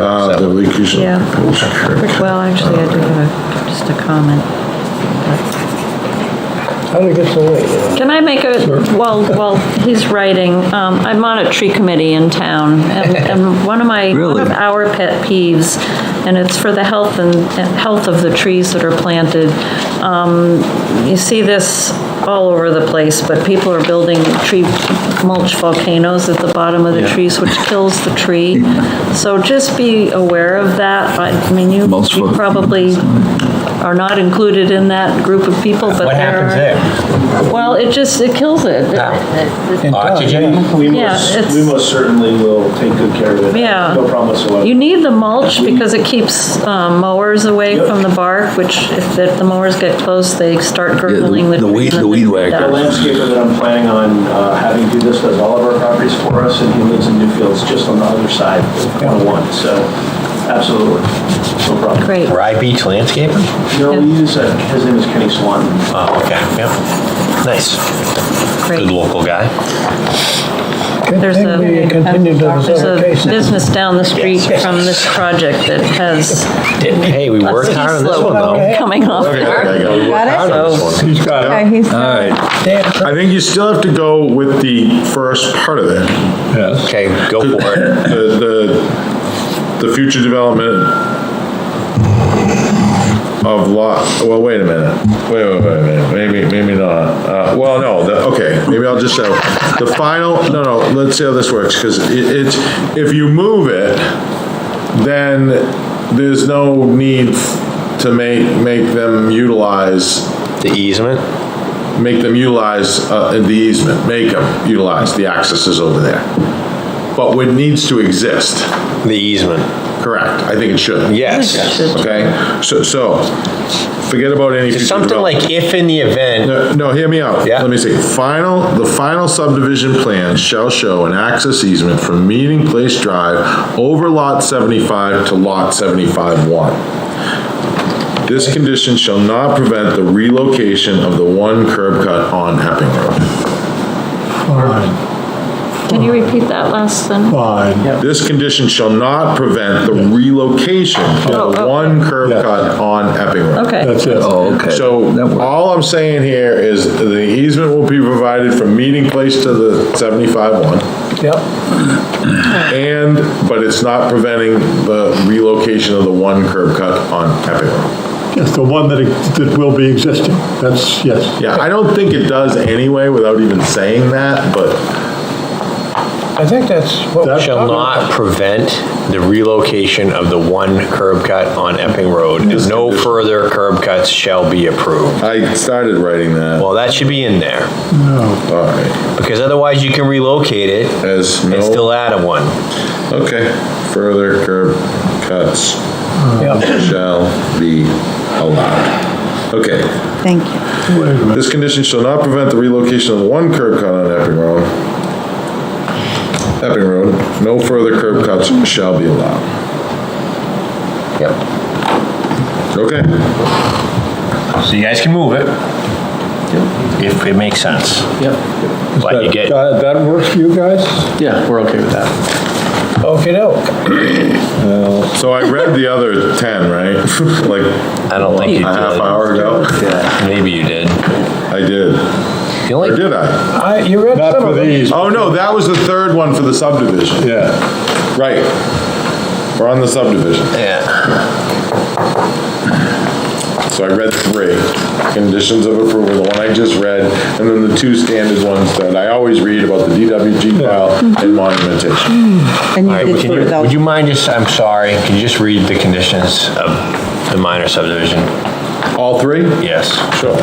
Ah, the leak is. Yeah. Well, actually, I do have a, just a comment. How did it get so late? Can I make a, while, while he's writing, um, I'm on a tree committee in town, and, and one of my, one of Really? our pet peeves, and it's for the health and, and health of the trees that are planted. Um, you see this all over the place, but people are building tree mulch volcanoes at the bottom of the Yeah. trees, which kills the tree. So just be aware of that. I I mean, you, Mulch you volcanoes. probably are not included in that group of people, but What there happens are- there? well, it just, it kills it. Yeah. It- it- Uh, Oxygen? We Yeah, most, it's- we most certainly will take good care of it. Yeah. No problem whatsoever. You need the mulch because it keeps um, mowers away Yep. from the bark, which if the the mowers get close, they start girdling the. the weed- trees the weed and- whacker. The landscaper that I'm planning on uh, having do this does all of our properties for us, and he lives in Newfields, just on the other side of 101, so absolutely, no problem. Great. Rye Beach landscaping? No, we use, uh, his name is Kenny Swan. Oh, okay, yeah. Nice. Good Great. local guy. There's a, Maybe it continued to there's the a other cases. business down the street from this project that has Hey, we a worked ski hard on this one, slope though. coming off. Hard on this one. He's got it. Okay, he's- All right, I think you still have to go with the first part of it. Okay, go for it. The, the, the future development of lot, well, wait a minute, wait, wait, wait a minute, maybe, maybe not. Uh, Well, no, the- okay, maybe I'll just say, the final, no, no, let's see how this works, because it, it's, if you move it, then there's no need to make, make them utilize The easement? make them utilize uh, the easement, make them utilize the accesses over there. But what needs to exist, The easement. correct, I think it should. Yes. Okay, so, so, forget about any future It's something development. like if in the event, No, no, hear me out. Yeah. Let me see. Final, the final subdivision plan shall show an access easement from Meeting Place Drive over Lot 75 to Lot 75-1. This condition shall not prevent the relocation of the one curb cut on Epping Road. Fine, Can you repeat that last then? fine. This condition shall not prevent the relocation of the Oh, one curb Yeah. cut on Epping Road. Okay. uh, That's it. oh, okay. That So works. all I'm saying here is the easement will be provided from meeting place to the 75-1, Yep, and, but it's not preventing the relocation of the one curb cut on Epping Road. It's the one that, that will be existing. That's, yes. Yeah, I don't think it does anyway without even saying that, but I think that's what we're shall not prevent the relocation of the one curb cut on Epping Road. and No further curb cuts shall be approved. I started writing that. Well, that should be in there, No. All right, because otherwise you can relocate it as and no, still add a one. okay, further curb cuts Yep. shall be allowed. Okay, Thank you. Wait a minute. this condition shall not prevent the relocation of one curb cut on Epping Road. Epping Road, no further curb cuts shall be allowed. Yep. Okay, So you guys can move it, if it makes sense. Yep, But you get, That Uh, that works for you guys? yeah, we're okay with that. Okay, doke. so I read the other 10, right? Like I don't think you a half did. hour ago? Maybe you did. I did. The Or only, did I? I, you read Not some for of it. these. Oh, no, that was the third one for the subdivision. Yeah. Right. We're on the subdivision. yeah, So I read three, conditions of approval, the one I just read, and then the two standard ones that I always read about the DWG file and monumentation. And all right, you did can do it you, though. would you mind just, I'm sorry, can you just read the conditions of the minor subdivision? All three? Yes. Sure.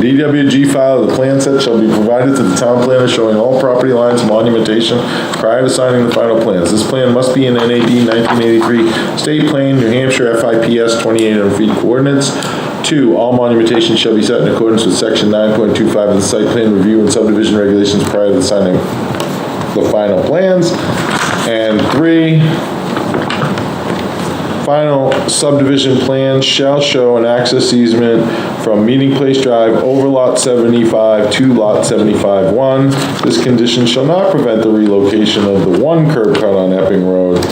DWG file of the plan set shall be provided to the town planner showing all property lines and monumentation prior to signing the final plans. This plan must be in NAD 1983 State Plan, New Hampshire FIPS 2800 feet coordinates. Two, all monumentation shall be set in accordance with section 9.25 of the site plan review and subdivision regulations prior to the signing the final plans. And three, Final subdivision plan shall show an access easement from Meeting Place Drive over Lot 75 to Lot 75-1. This condition shall not prevent the relocation of the one curb cut on Epping Road